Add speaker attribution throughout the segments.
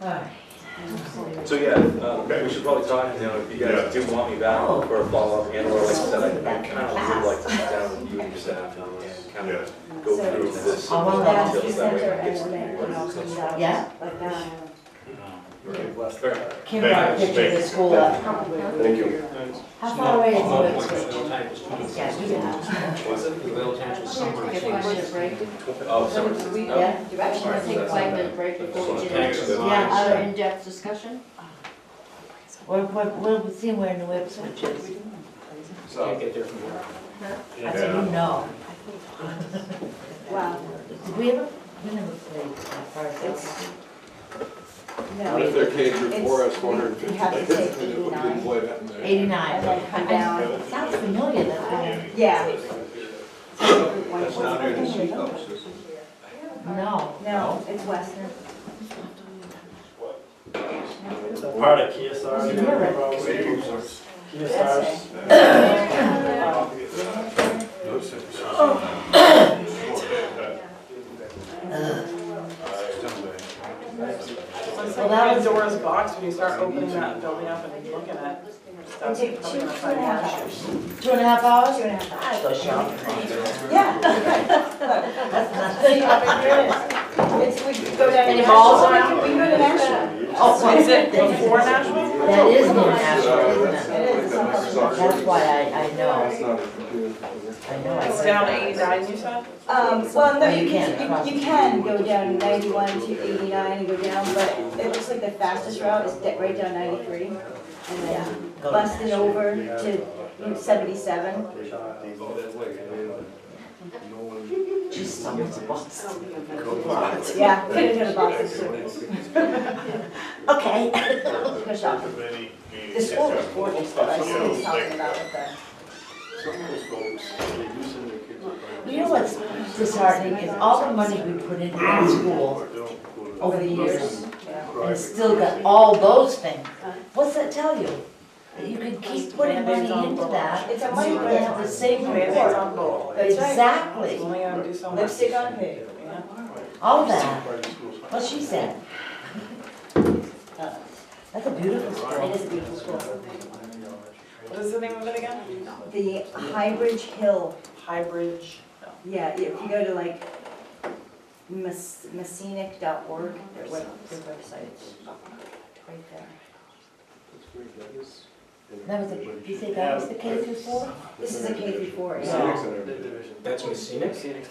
Speaker 1: Alright.
Speaker 2: So yeah, um,
Speaker 3: Okay.
Speaker 2: we should probably talk, you know, if you guys do want me back
Speaker 1: Oh.
Speaker 2: for a follow-up and or like I said, I I kind of would like to sit down with you and your staff and kind
Speaker 3: Yeah.
Speaker 2: of go through this.
Speaker 1: I want
Speaker 2: details
Speaker 1: that.
Speaker 2: that way I can get some more-
Speaker 1: Yeah? Kim brought a picture of the school up.
Speaker 3: Thank you.
Speaker 1: How far away is
Speaker 4: Small
Speaker 1: the
Speaker 4: point,
Speaker 1: switch?
Speaker 4: middle tank was twenty-six.
Speaker 1: Yeah, do that.
Speaker 2: Was it?
Speaker 4: The middle tank was somewhere between.
Speaker 2: Oh, sorry. No.
Speaker 1: Yeah,
Speaker 5: Do you actually want to take a five minute break before we get into other
Speaker 4: Yeah.
Speaker 5: in-depth discussion?
Speaker 1: we're, we're, we'll see where the web switch is.
Speaker 4: Can't get there from here.
Speaker 1: I said, you know.
Speaker 5: Wow.
Speaker 1: Did we ever, we never played that part.
Speaker 5: It's-
Speaker 3: What if they're K through four, it's four hundred and fifty.
Speaker 5: You have to take
Speaker 3: We didn't
Speaker 5: 89.
Speaker 3: play that in there.
Speaker 1: Eighty-nine.
Speaker 5: I'd like to come
Speaker 1: I-
Speaker 5: down.
Speaker 1: It sounds familiar, that I,
Speaker 5: Yeah.
Speaker 6: That's not near the sheet though, so
Speaker 1: no.
Speaker 5: No, it's Western.
Speaker 7: Part of KSR.
Speaker 1: It's never-
Speaker 7: KSR's.
Speaker 1: Well, that was-
Speaker 8: Pandora's box when you start opening that building up and looking at stuff.
Speaker 5: It takes two, two and a half hours.
Speaker 1: Two and a half hours, two and a half hours. I go shopping.
Speaker 5: Yeah. It's, we could go down.
Speaker 1: Any malls
Speaker 5: We could go to Nashville.
Speaker 1: Oh,
Speaker 8: Is it before Nashville?
Speaker 1: That is near Nashville, isn't it? That's
Speaker 3: That's
Speaker 1: why I, I know,
Speaker 3: not a computer.
Speaker 1: I know. I
Speaker 8: It's
Speaker 1: heard
Speaker 8: down
Speaker 1: that.
Speaker 8: eighty-nine, you said?
Speaker 5: Um, well, no,
Speaker 1: No, you
Speaker 5: you
Speaker 1: can't cross.
Speaker 5: can, you, you can go down ninety-one to eighty-nine and go down, but it looks like the fastest route is de- right down ninety-three. And then
Speaker 1: Go to
Speaker 5: bust it
Speaker 1: Nashville.
Speaker 5: over to Route seventy-seven.
Speaker 1: Just someone's box.
Speaker 5: Yeah, we're gonna go to Boston.
Speaker 1: Okay.
Speaker 5: Go shop. The school is gorgeous, but I see what he's talking about with the.
Speaker 1: You know what's disheartening is all the money we put into that school over the years and still got all those things. What's that tell you? That you can keep putting money into that
Speaker 5: It's a
Speaker 1: and
Speaker 5: money
Speaker 1: you
Speaker 5: grab.
Speaker 1: have the same
Speaker 8: Band-Aids
Speaker 1: reward.
Speaker 8: on both.
Speaker 5: That's right.
Speaker 1: Exactly,
Speaker 8: It's only gonna do so much.
Speaker 5: Lipstick on pig.
Speaker 8: Yeah.
Speaker 1: all that. What she said. That's a beautiful
Speaker 5: It
Speaker 1: school.
Speaker 5: is a beautiful school.
Speaker 8: What is the name of it again?
Speaker 5: The Highbridge Hill,
Speaker 8: Highbridge.
Speaker 5: yeah, if you go to like mess- messinic.org, their web, their website's right there.
Speaker 1: That was a, you said that was the K through four?
Speaker 5: This is a K through four, yeah.
Speaker 3: No,
Speaker 4: That's Messina?
Speaker 3: I think.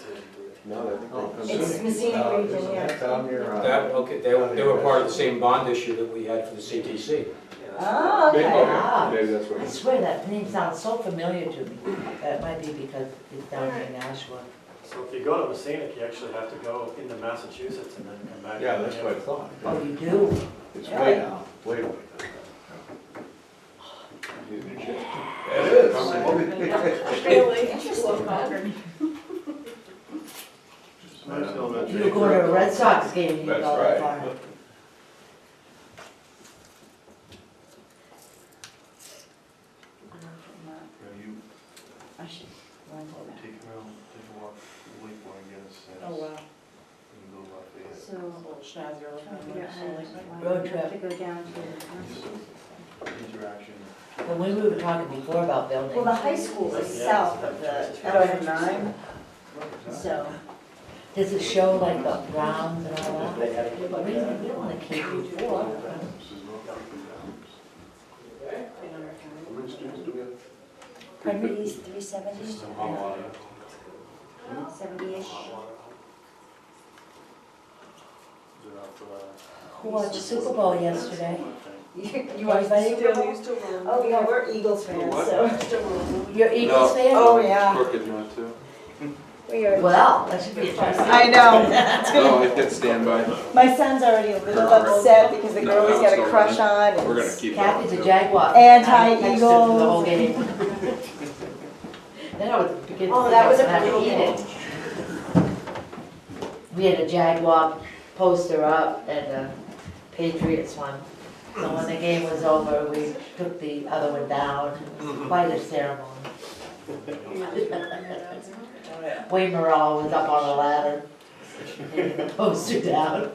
Speaker 5: It's Messinic region, yeah.
Speaker 6: Down here,
Speaker 4: That, uh, okay, they were, they were part of the same bond issue that we had for the CTC.
Speaker 5: Oh, okay.
Speaker 1: Ah.
Speaker 3: Maybe that's what.
Speaker 1: I swear that name sounds so familiar to me. That might be because it's down in Nashua.
Speaker 7: So if you go to Messina, you actually have to go into Massachusetts and then come back.
Speaker 6: Yeah, that's what I thought.
Speaker 1: Oh, you do?
Speaker 6: It's way down, way way
Speaker 1: You were going to a Red Sox game, you
Speaker 3: That's
Speaker 1: go that
Speaker 3: right.
Speaker 1: far.
Speaker 5: I should learn that.
Speaker 8: Oh, wow.
Speaker 5: So,
Speaker 8: Little schnazzier
Speaker 5: trying to
Speaker 8: looking.
Speaker 5: figure out how to like,
Speaker 1: Road
Speaker 5: why
Speaker 1: trip.
Speaker 5: to go down to.
Speaker 2: uh,
Speaker 6: Interaction.
Speaker 1: When we were talking before about
Speaker 5: Well, the
Speaker 1: buildings,
Speaker 5: high school is south of the
Speaker 8: Oh, I
Speaker 5: elementary
Speaker 8: have nine?
Speaker 5: school, so.
Speaker 1: does it show like the rounds and all that? We don't, we don't wanna keep you for.
Speaker 5: Pardon me, three seventy? Seventy-ish.
Speaker 1: Who watched the Super Bowl yesterday?
Speaker 5: You
Speaker 1: want to say
Speaker 5: Super
Speaker 8: Still
Speaker 5: Bowl?
Speaker 8: used to roll.
Speaker 5: Oh, yeah, we're Eagles fans, so.
Speaker 1: You're Eagles fan?
Speaker 5: Oh, yeah,
Speaker 3: Crooked one too.
Speaker 5: we are.
Speaker 1: Well, that should be fun.
Speaker 8: I know.
Speaker 3: No, I hit standby.
Speaker 5: My son's already a little upset because the girl he's got a crush on
Speaker 3: We're gonna
Speaker 5: is
Speaker 3: keep. that
Speaker 1: Kathy's a
Speaker 3: one.
Speaker 1: Jaguar.
Speaker 5: Anti-Eagles.
Speaker 1: I texted her the whole game. Then I would begin to
Speaker 5: Oh, that was a
Speaker 1: think I had to
Speaker 5: brutal
Speaker 1: eat
Speaker 5: game.
Speaker 1: it. We had a Jaguar poster up and a Patriots one. So when the game was over, we took the other one down, quite a ceremony. Wayne Morrell was up on a ladder, poster down.